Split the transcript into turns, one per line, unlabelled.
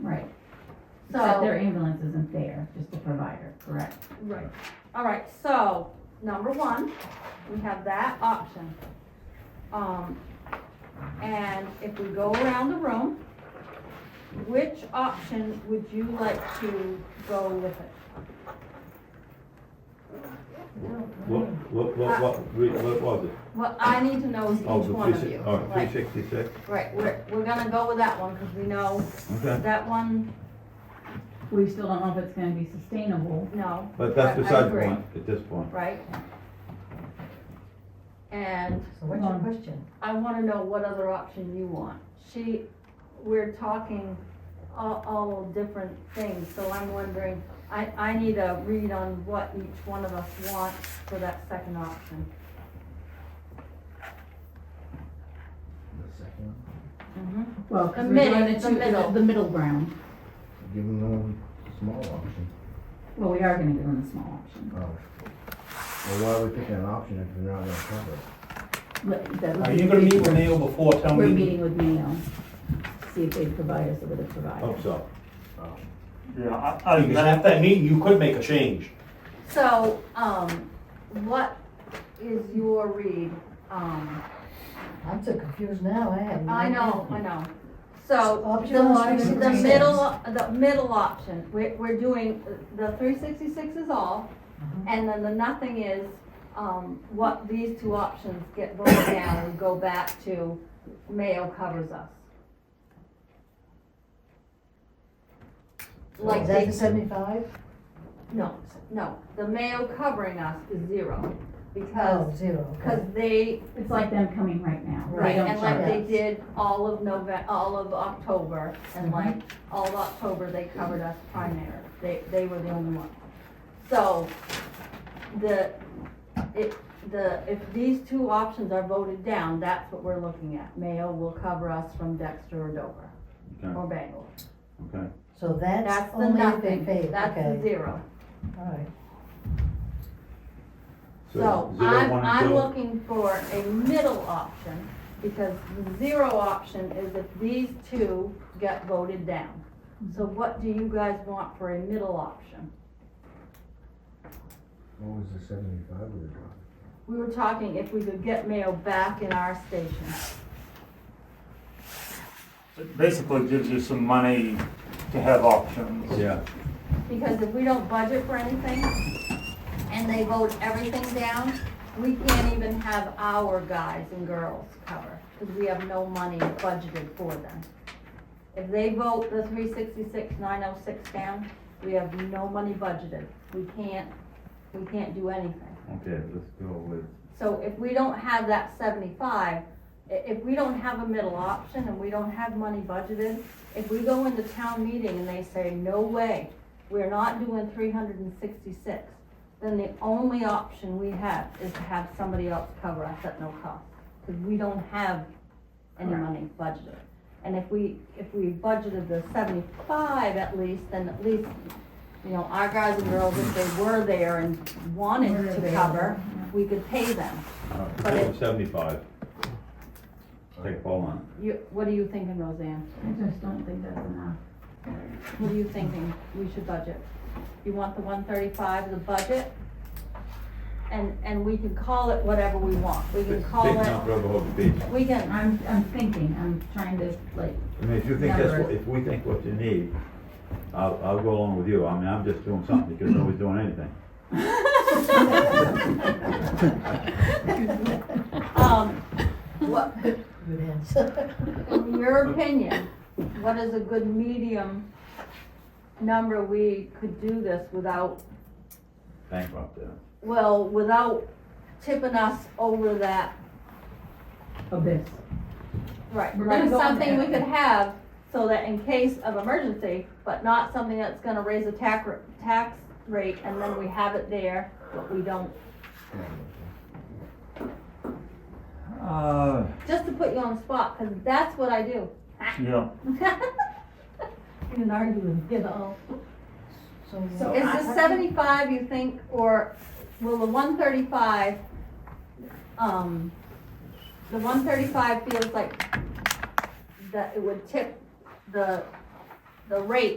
Right.
Except their
So,
ambulance isn't there, just the provider, correct?
right, all right, so, number one, we have that option. Um, and if we go around the room, which option would you like to go with it?
What, what, what, what, re- what was it?
What I need to know is each
Oh, the
one of
three si-
you.
All right,
Like,
three sixty-six,
Right, we're, we're gonna go with that one, cause we know
okay,
that one,
We still don't know if it's gonna be sustainable.
no,
but
I- I
that's beside the
agree.
point at this point.
right? And
So what's your
Um,
question?
I wanna know what other option you want. She, we're talking all, all different things, so I'm wondering, I, I need a read on what each one of us wants for that second option.
The second, one.
Mm-hmm.
Well, 'cause
The
we're doing
mid- the
two-
middle.
The middle ground.
give them the small option.
Well, we are gonna give them the small option.
Oh. Well, why are we picking an option if we're not gonna cover it?
But that would
Are
be-
you gonna meet with Neil before town
We're
meeting?
meeting with Mayo, see if they provide us with a provider.
Oh.
Hope Oh, so.
Oh.
Yeah, I, I. Because at that meeting, you could make a change.
So, um, what is your read, um?
I'm so confused now, I have. no
I know, I
idea.
know. So,
Option one
the,
is
the
three
middle, the middle option, we're, we're doing, the three sixty-six is all,
Uh-huh.
and then the nothing is, um, what these two options get voted down and go back to Mayo covers us. Like
Is that
they,
the seventy-five?
no, no, the Mayo covering us is zero, because,
Oh, zero,
because
okay.
they
It's like them coming right now. They
Right,
don't
and like
charge.
they
us.
did all of November, all of October, and
Mhm.
like, all of October, they covered us primary, they, they were the only one. So, the, it, the, if these two options are voted down, that's what we're looking at, Mayo will cover us from Dexter or Dover,
Okay,
or Bangor.
okay.
So that's
That's the
only if they
nothing,
pay,
that's the
okay,
zero.
alright.
So
zero,
I'm,
one, and
I'm
two.
looking for a middle option, because the zero option is if these two get voted down. So what do you guys want for a middle option?
What was the seventy-five we were talking?
We were talking if we could get Mayo back in our station.
It basically gives you some money to have options.
Yeah,
Because if we don't budget for anything, and they vote everything down, we can't even have our guys and girls cover, because we have no money budgeted for them. If they vote the three sixty-six, nine oh six down, we have no money budgeted, we can't, we can't do anything.
okay, let's go with,
So if we don't have that seventy-five, i- if we don't have a middle option and we don't have money budgeted, if we go into town meeting and they say, no way, we're not doing three hundred and sixty-six, then the only option we have is to have somebody else cover us at no cost, because we don't have any money budgeted. And if we, if we budgeted the seventy-five at least, then at least, you know, our guys and girls, if they were there and
Were
wanted to
available,
cover, we could pay them.
all right,
But
go
it-
with seventy-five. Take a poll on
You, what are you thinking, Roseanne?
I just don't think that's enough.
What are you thinking we should budget? You want the one thirty-five, the budget? And, and we can call it whatever we want. We
it.
can
Big
call
big enough
it,
for Rehoboth Beach.
we can,
I'm, I'm thinking, I'm trying to like,
I mean, if you think that's, what-
Numbers.
if we think what you need, I'll, I'll go along with you. I mean, I'm just doing something because nobody's doing anything.
um, what,
Good answer.
in your opinion, what is a good medium number we could do this without,
Bankrupt, yeah.
well, without tipping us over that
abyss.
Right,
We're
like
gonna go on
something we
there.
could have so that in case of emergency, but not something that's gonna raise a tax, r- tax rate and then we have it there, but we don't.
Uh,
Just to put you on the spot, cause that's what I do.
yeah.
You can argue with me, you know.
So
Is
I-
the seventy-five you think, or will the one thirty-five, um, the one thirty-five feels like that it would tip the the rate